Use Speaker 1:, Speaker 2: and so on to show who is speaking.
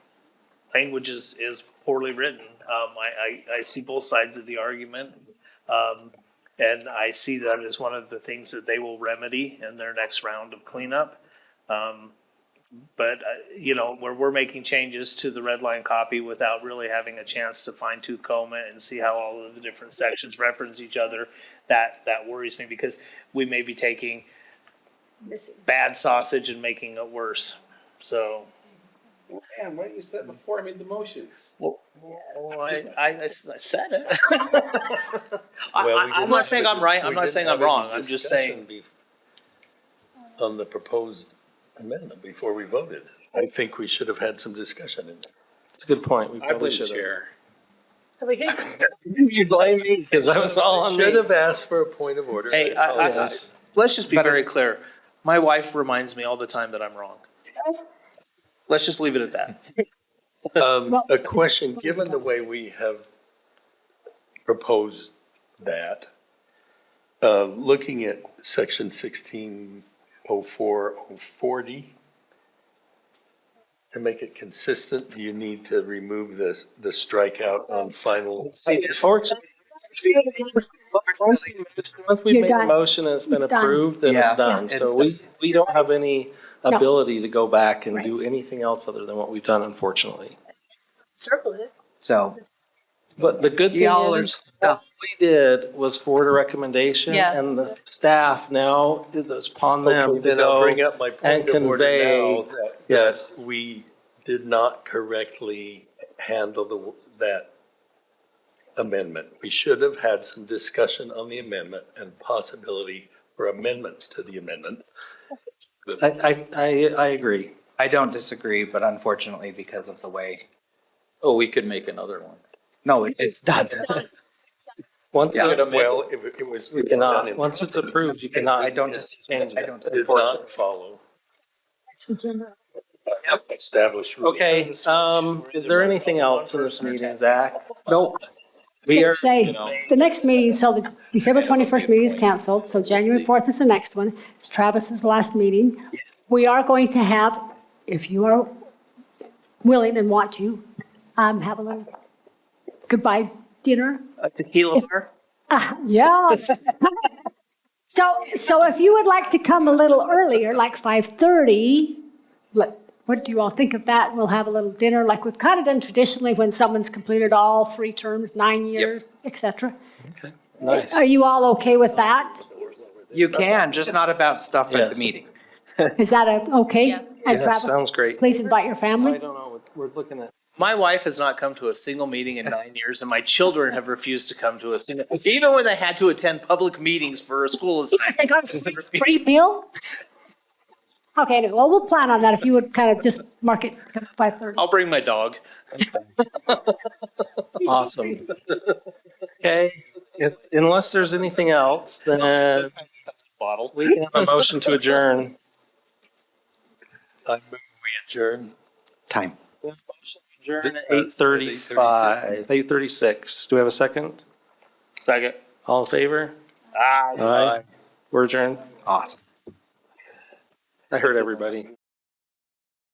Speaker 1: language is, is poorly written. Um, I, I, I see both sides of the argument. Um, and I see that as one of the things that they will remedy in their next round of cleanup. Um, but, uh, you know, where we're making changes to the red line copy without really having a chance to fine tooth comb it and see how all of the different sections reference each other, that, that worries me because we may be taking
Speaker 2: Missing.
Speaker 1: bad sausage and making it worse. So,
Speaker 3: Man, why didn't you say that before I made the motion?
Speaker 1: Well, Oh, I, I, I s- I said it. I,
Speaker 4: Well, we
Speaker 1: I, I'm
Speaker 4: didn't
Speaker 1: not
Speaker 4: have
Speaker 1: saying
Speaker 4: a
Speaker 1: I'm
Speaker 4: dis-
Speaker 1: right.
Speaker 4: we
Speaker 1: I'm not
Speaker 4: didn't
Speaker 1: saying
Speaker 4: have
Speaker 1: I'm
Speaker 4: any
Speaker 1: wrong. I'm just saying.
Speaker 4: discussion be- On the proposed amendment before we voted. I think we should have had some discussion in there.
Speaker 5: It's a good point. We
Speaker 3: I
Speaker 5: probably
Speaker 3: blame the
Speaker 5: should have.
Speaker 3: chair.
Speaker 2: So we can,
Speaker 5: You blame me because I was all on
Speaker 4: Should
Speaker 5: me.
Speaker 4: have asked for a point of order.
Speaker 1: Hey, I, I, I,
Speaker 5: Oh, Yes.
Speaker 1: let's just be
Speaker 5: But I-
Speaker 1: very clear. My wife reminds me all the time that I'm wrong. Let's just leave it at that.
Speaker 4: Um, a question, given the way we have proposed that, uh, looking at section sixteen oh four oh forty, to make it consistent, do you need to remove the, the strikeout on final?
Speaker 5: See, Unfortunately, once once we
Speaker 2: You're
Speaker 5: make a
Speaker 2: done.
Speaker 5: motion and it's been
Speaker 2: You've done.
Speaker 5: approved, then
Speaker 1: Yeah.
Speaker 5: it's done. So we, we don't have any
Speaker 2: No.
Speaker 5: ability to go back and do anything else other than what we've done, unfortunately.
Speaker 2: circle it.
Speaker 6: So,
Speaker 5: But the good thing
Speaker 6: Y'all are
Speaker 5: is, all
Speaker 6: stuck.
Speaker 5: we did was forward a recommendation
Speaker 7: Yeah.
Speaker 5: and the staff now, it's upon them to
Speaker 4: Then I'll bring
Speaker 5: go.
Speaker 4: up my point
Speaker 5: and
Speaker 4: of order
Speaker 5: convey-
Speaker 4: now that
Speaker 5: Yes,
Speaker 4: we did not correctly handle the, that amendment. We should have had some discussion on the amendment and possibility for amendments to the amendment.
Speaker 5: I, I, I, I agree.
Speaker 6: I don't disagree, but unfortunately, because of the way,
Speaker 8: Oh, we could make another one.
Speaker 6: no, it- it's done.
Speaker 5: Once
Speaker 6: Yeah.
Speaker 5: you're to make,
Speaker 4: Well, it, it was.
Speaker 5: you cannot, once it's approved, you cannot.
Speaker 6: I don't dis,
Speaker 5: Change it.
Speaker 6: I don't.
Speaker 4: Did not follow.
Speaker 3: Establish.
Speaker 5: Okay, um, is there anything else in this meeting, Zach? Nope. We are,
Speaker 2: Say, the next meeting, so the December 21st meeting is canceled, so January 4th is the next one. It's Travis's last meeting. We are going to have, if you are willing and want to, um, have a little goodbye dinner.
Speaker 8: A tequila bar?
Speaker 2: Yes. So, so if you would like to come a little earlier, like 5:30, let- what do you all think of that? We'll have a little dinner like we've kind of done traditionally when someone's completed all three terms, nine years, et cetera.
Speaker 5: nice.
Speaker 2: Are you all okay with that?
Speaker 6: You can, just not about stuff at
Speaker 5: Yes.
Speaker 6: the meeting.
Speaker 2: Is that a, okay?
Speaker 7: Yeah.
Speaker 2: And
Speaker 5: That
Speaker 2: Travis,
Speaker 5: sounds great.
Speaker 2: please invite your
Speaker 5: I
Speaker 2: family.
Speaker 5: don't know, what we're looking at.
Speaker 1: My wife has not come to a single meeting in nine years, and my children have refused to come to a single, even when they had to attend public meetings for a school
Speaker 2: I think I'm
Speaker 1: assignment.
Speaker 2: Free meal? Okay, anyway, well, we'll plan on that if you would kind of just mark it 5:30.
Speaker 1: I'll bring my dog.
Speaker 5: Awesome. Okay, if, unless there's anything else, then
Speaker 1: Bottle.
Speaker 5: we can have a motion to adjourn.
Speaker 4: I move we adjourn.
Speaker 6: Time.
Speaker 5: Adjourn at eight thirty-five, eight thirty-six. Do we have a second?
Speaker 1: Second.
Speaker 5: All in favor?
Speaker 1: Ah,
Speaker 5: Aye. We're adjourned.
Speaker 6: Awesome.
Speaker 5: I heard everybody.